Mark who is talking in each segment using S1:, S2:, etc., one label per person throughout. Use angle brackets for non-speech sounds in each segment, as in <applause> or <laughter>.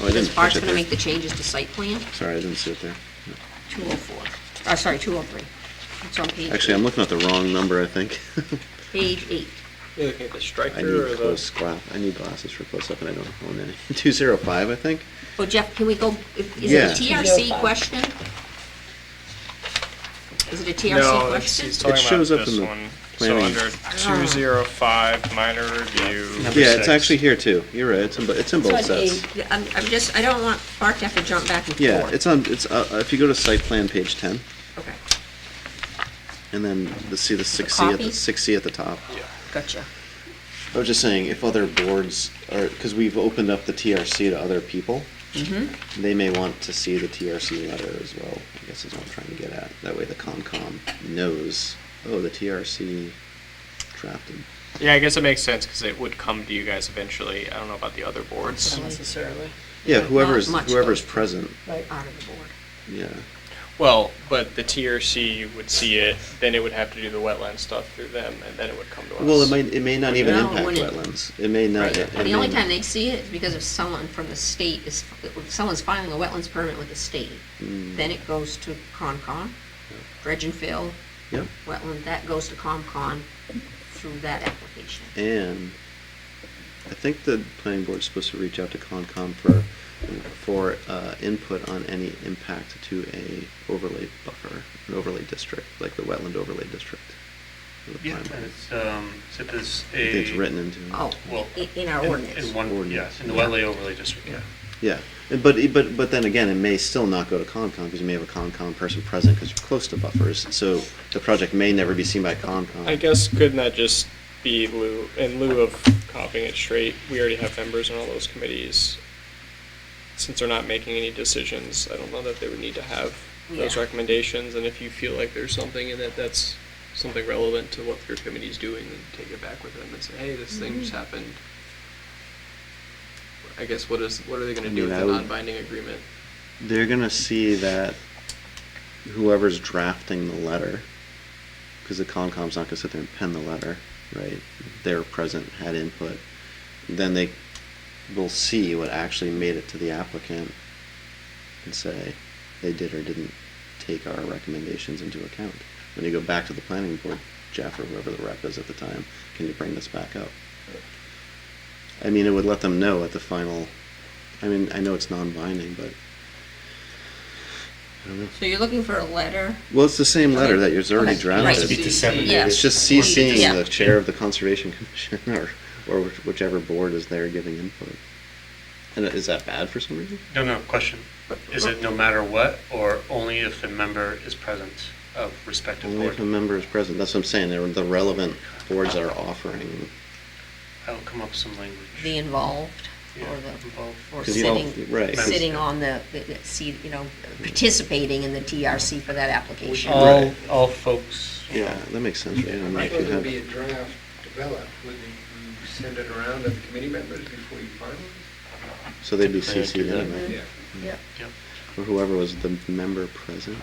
S1: Oh, I didn't
S2: Bart's
S1: catch it
S2: gonna
S1: there.
S2: make the changes to site plan,
S1: Sorry, I didn't see it there.
S2: 204, uh, sorry, 203. It's on page,
S1: Actually, I'm looking at the wrong number, I think. <laughs>
S2: page eight.
S3: You looking at the
S1: I
S3: striker or
S1: need close
S3: the?
S1: gla, I need glasses for close up and I don't own any. <laughs> Two zero five, I think.
S2: Oh, Jeff, can we go, is it
S1: Yeah.
S2: a TRC question? Is it a TRC
S4: No, it's-
S2: question?
S4: he's talking
S1: It shows
S4: about
S1: up in
S4: this
S1: the
S4: one. So
S1: planning.
S4: under two zero five, minor review.
S1: Yeah, it's actually here too. You're right, it's in, bo- it's in both
S2: It's on
S1: sets.
S2: eight. Yeah, I'm, I'm just, I don't want Bart to have to jump back and forth.
S1: Yeah, it's on, it's, uh, uh, if you go to site plan, page ten,
S2: Okay,
S1: and then the, see the six C at
S2: copy?
S1: the, six C at the top.
S2: gotcha.
S1: I was just saying, if other boards are, because we've opened up the TRC to other people,
S2: Mm-hmm.
S1: they may want to see the TRC letter as well, I guess is what I'm trying to get at. That way the COMCOM knows, oh, the TRC drafted.
S4: Yeah, I guess it makes sense because it would come to you guys eventually. I don't know about the other boards.
S5: necessarily.
S1: Yeah, whoever's,
S2: much,
S1: whoever's
S2: but-
S1: present,
S5: Right.
S2: Out of the board.
S1: yeah.
S4: Well, but the TRC would see it, then it would have to do the wetland stuff through them, and then it would come to us.
S1: Well, it might, it may not even
S2: No, it
S1: impact
S2: wouldn't.
S1: wetlands. It may not. it- it
S2: The only
S1: may
S2: time
S1: not.
S2: they see it is because if someone from the state is, if someone's filing a wetlands permit with the state,
S1: Hmm.
S2: then it goes to Concon, dredge and fill,
S1: Yep,
S2: wetland, that goes to ComCon through that application.
S1: and I think the planning board's supposed to reach out to Concom for, for, uh, input on any impact to a overlay buffer, an overlay district, like the wetland overlay district. for the
S6: Yeah,
S1: primary.
S6: it's, um, so there's
S1: I think
S6: a.
S1: it's written into. it.
S2: Oh,
S6: Well,
S2: i- in our
S6: in-
S2: ordinance.
S6: In one,
S1: Ordinance,
S6: yes, in the
S1: yeah.
S6: wetland overlay district, yeah.
S1: Yeah, and but, but, but then again, it may still not go to Concom, because you may have a Concom person present, because you're close to buffers, so the project may never be seen by Concom.
S4: I guess couldn't that just be lieu, in lieu of copying it straight, we already have members on all those committees. Since they're not making any decisions, I don't know that they would need to have those
S2: Yeah.
S4: recommendations, and if you feel like there's something and that that's something relevant to what your committee's doing, then take it back with them and say, hey, this thing
S1: Mm-hmm.
S4: just happened. I guess what is, what are they gonna
S1: I
S4: do
S1: mean,
S4: with
S1: I
S4: the
S1: would-
S4: non-binding agreement?
S1: they're gonna see that whoever's drafting the letter, because the Concom's not gonna sit there and pen the letter, right? They're present, had input, then they will see what actually made it to the applicant and say they did or didn't take our recommendations into account. When you go back to the planning board, Jeff or whoever the rep is at the time, can you bring this back up? I mean, it would let them know at the final, I mean, I know it's non-binding, but I don't know.
S2: So you're looking for a letter?
S1: Well, it's the same letter that was already
S2: Okay, right.
S1: drafted.
S2: Must be
S6: disseminated.
S2: Yeah.
S1: It's just CCing
S2: Yeah.
S1: the chair of the conservation <laughs> commission or, or which- whichever board is there giving input. And is that bad for some reason?
S6: No, no, question. Is it no matter what, or only if a member is present of respective
S1: Only
S6: board?
S1: if a member is present. That's what I'm saying. They're the relevant boards that are offering.
S6: I'll come up with some language.
S2: The involved
S6: Yeah,
S2: or the,
S6: involved.
S2: or
S1: Because you don't-
S2: sitting,
S1: right.
S2: sitting on the, the- the seat, you know, participating in the TRC for that application.
S6: All, all folks. you
S1: Yeah,
S6: know.
S1: that makes sense, right? I mean, if
S7: Might
S1: you
S7: there
S1: have-
S7: be a draft developed, would you you send it around to the committee members before you finalize?
S1: So they'd be
S6: Typically, I'd
S1: CC'd
S6: do that.
S1: anyway,
S2: Yep.
S6: Yep.
S1: or whoever was the member present. <laughs>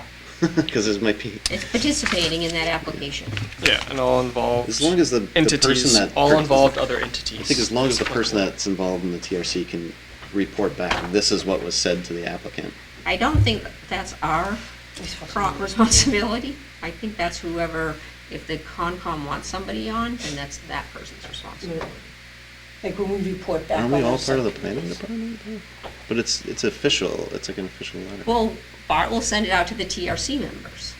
S1: Because this might be,
S2: It's participating in that application.
S4: Yeah, and all involved.
S1: as long as the the person
S4: Entities,
S1: that.
S4: all
S1: per-
S4: involved other entities.
S1: I think as long as the person that's involved in the TRC can report back, this is what was said to the applicant.
S2: I don't think that's our pro- responsibility. I think that's whoever, if the Concom wants somebody on, then that's that person's responsibility.
S5: Like when we report back.
S1: Aren't we
S5: on our
S1: all part of the planning
S5: subcommittees.
S1: department? though? But it's, it's official, it's like an official letter.
S2: Well, Bart will send it out to the TRC members,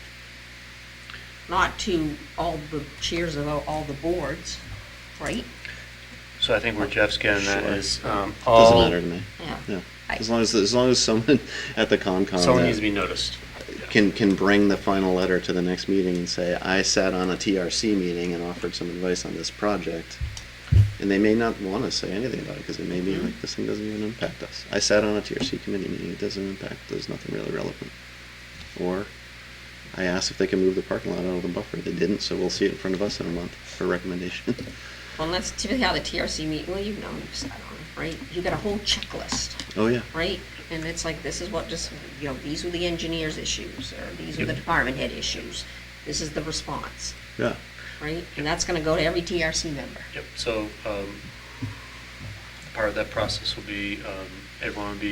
S2: not to all the chairs of all all the boards, right?
S6: So I think where Jeff's getting at
S1: Sure.
S6: is, um,
S1: Doesn't
S6: all,
S1: matter to me,
S2: Yeah.
S1: yeah.
S2: I-
S1: As long as, as long as someone <laughs> at the Concom.
S6: someone
S1: that
S6: needs to be noticed.
S1: Can, can bring the final letter to the next meeting and say, I sat on a TRC meeting and offered some advice on this project. And they may not want to say anything about it, because it may be like, this thing doesn't even impact us. I sat on a TRC committee meeting, it doesn't impact, there's nothing really relevant. Or, I asked if they can move the parking lot out of the buffer, they didn't, so we'll see it in front of us in a month for recommendation. <laughs>
S2: Well, and that's typically how the TRC meet, well, you know, you've sat on it, right? You got a whole checklist.
S1: Oh, yeah.
S2: right? And it's like, this is what just, you know, these were the engineer's issues, or these were the department head issues. This is the response,
S1: Yeah.
S2: right? And that's gonna go to every TRC member.
S6: Yep, so, um, part of that process will be, um, everyone will be